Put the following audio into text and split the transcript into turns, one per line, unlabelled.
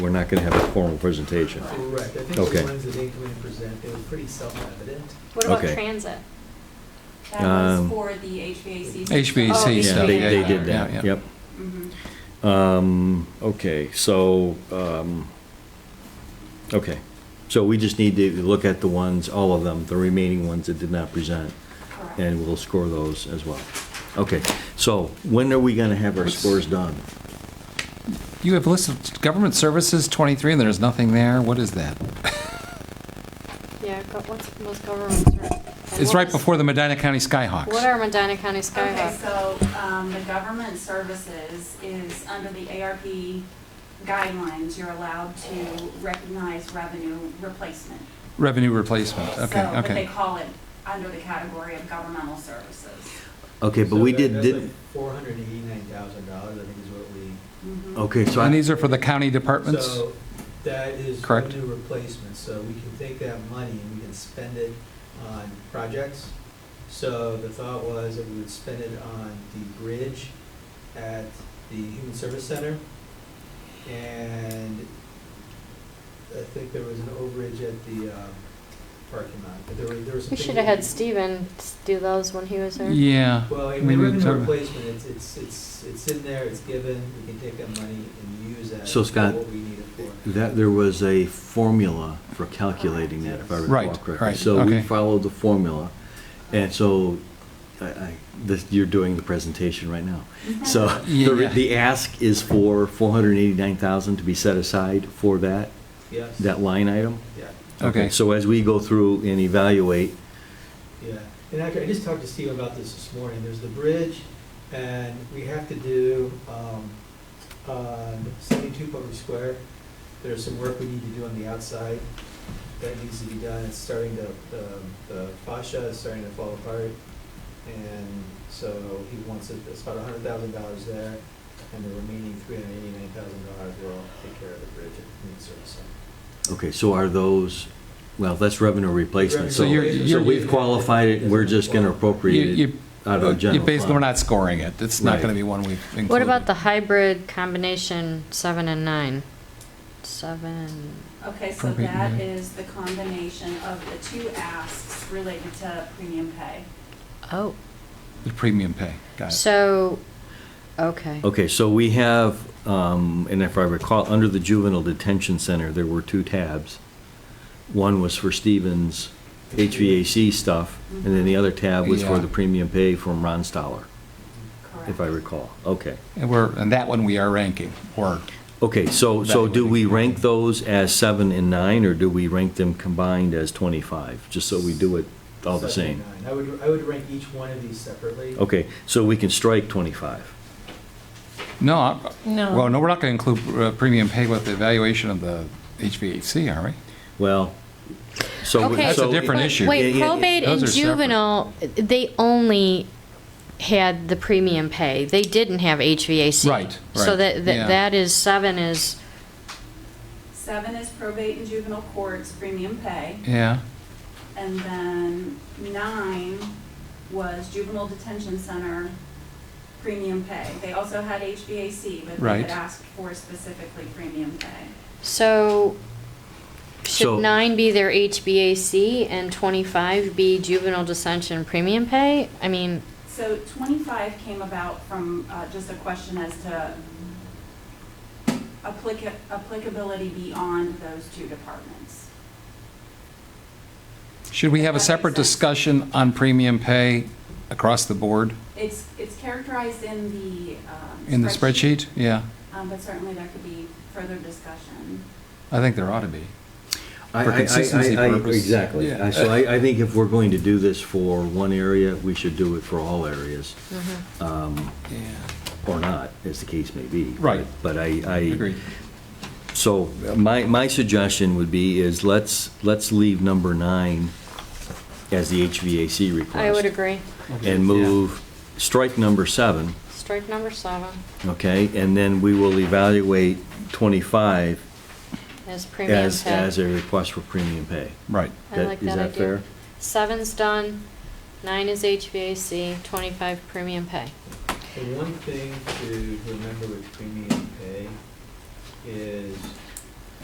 we're not gonna have a formal presentation.
Correct, I think the
Okay.
ones that they were going to present, they were pretty self-evident.
What about
Okay.
transit?
That was
Um,
for the HVAC.
Oh,
Yeah,
they
system.
HVAC
they, they
that.
did
Yeah,
that, yep.
Mm-hmm.
Mhm.
Um, okay, so, um, okay. So we just need to look at the ones, all of them, the remaining ones that did not present,
Correct.
and we'll score those as well. Okay, so when are we gonna have our scores done?
You have a list of government services 23, and there's nothing there. What is that?
Yeah, go- what's most governments are. and
It's
what
right
is-
before the Medina County Skyhawks.
What are Medina County
Okay,
Skyhawks?
so, um, the government services is under the ARP guidelines, you're allowed to recognize revenue replacement.
Revenue replacement. Okay,
So, but they
okay.
call it under the category of governmental services.
Okay, but we did, did,
Four hundred and eighty-nine thousand dollars, I think is what we.
Mhm.
okay, so
And
I,
these are for the county departments?
So that is
Correct.
revenue replacement, so we can take that money and we can spend it on projects. So the thought was that we would spend it on the bridge at the Human Service Center. And I think there was an overage at the um, parking lot, but there were, there was some.
We
things
should
that
have had Steven s- do those when he was there.
Yeah.
Well, I
Maybe
mean, revenue
it's-
replacement, it's, it's, it's, it's in there, it's given, we can take that money and use that
So,
for
Scott,
what we need it for.
that, there was a formula for calculating that, if I recall
Right,
correctly.
right,
So we
okay.
followed the formula, and so, I, I, this, you're doing the presentation right now. So the,
Yeah.
the ask is for four hundred and eighty-nine thousand to be set aside for that,
Yes.
that line item?
Yeah,
Okay.
So as we go through and evaluate,
yeah. And actually, I just talked to Steve about this this morning. There's the bridge, and we have to do, um, on seventy-two Public Square, there's some work we need to do on the outside that needs to be done. It's starting to, the, the fascia is starting to fall apart. And so he wants it, it's about hundred thousand dollars there, and the remaining three hundred eighty-nine thousand dollars will take care of the bridge at Community Service Center.
okay, so are those, well, that's revenue replacement, so,
So you're-
so
you're-
we've qualified it, we're just gonna
You-
appropriate it
you-
out of the
You
general
basically, we're
fund.
not scoring it. It's not
Right.
going to be one we've included.
What about the hybrid combination seven and nine? Seven,
Okay, so
Appropriate
that
money.
is the combination of the two asks related to premium pay.
oh,
The premium pay. Got it.
so, okay.
Okay, so we have, um, and if I recall, under the juvenile detention center, there were two tabs. One was for Stevens HVAC stuff, and then the other tab was for
Yeah.
the premium pay from Ron Stoller,
Correct.
if I recall, okay.
And we're, and that one we are ranking, or,
Okay, so, so do we
Evaluating.
rank those as seven and nine, or do we rank them combined as 25? Just so we do it all the same.
Seventy-nine. I would, I would rank each one of these separately.
Okay, so we can strike 25.
no. I-
No.
Well, no, we're not going to include uh, premium pay with the evaluation of the HVAC, are we?
Well, so.
Okay. That's a
so-
different
But
issue.
Yeah,
Wait,
yeah,
probate
Those
and
are separate.
juvenile, they only had the premium pay. They didn't have HVAC.
Right,
So
right,
that,
yeah.
that that is, seven is,
Seven is probate and juvenile courts premium pay.
Yeah.
And then nine was juvenile detention center premium pay. They also had HVAC, but they
Right.
had asked for specifically premium pay.
so
So-
should nine be their HBAC and 25 be juvenile dissension premium pay? I mean,
So twenty-five came about from uh, just a question as to applica- applicability beyond those two departments.
Should we have a
That makes
separate
sense.
discussion on premium pay across the board
It's, it's characterized in the. um,
in the spreadsheet? Yeah,
Um, But certainly there could be further discussion.
I think there ought to be.
I-
For
I- I-
consistency
I- I-
purpose.
Exactly.
Yeah.
I- So I, I think if we're going to do this for one area, we should do it for all areas, um,
Yeah.
or not, as the case may be.
Right.
But I, I.
Agreed.
So my, my suggestion would be is let's, let's leave number nine as the HVAC request.
I would agree.
And move, strike number seven,
Strike number seven
okay? And then we will evaluate 25
is premium
as,
pay.
as a request for premium pay.
Right.
I
That-
like
is
that
that
idea.
fair?
Seven's done, nine is HVAC, 25 premium pay.
The one thing to remember with premium pay is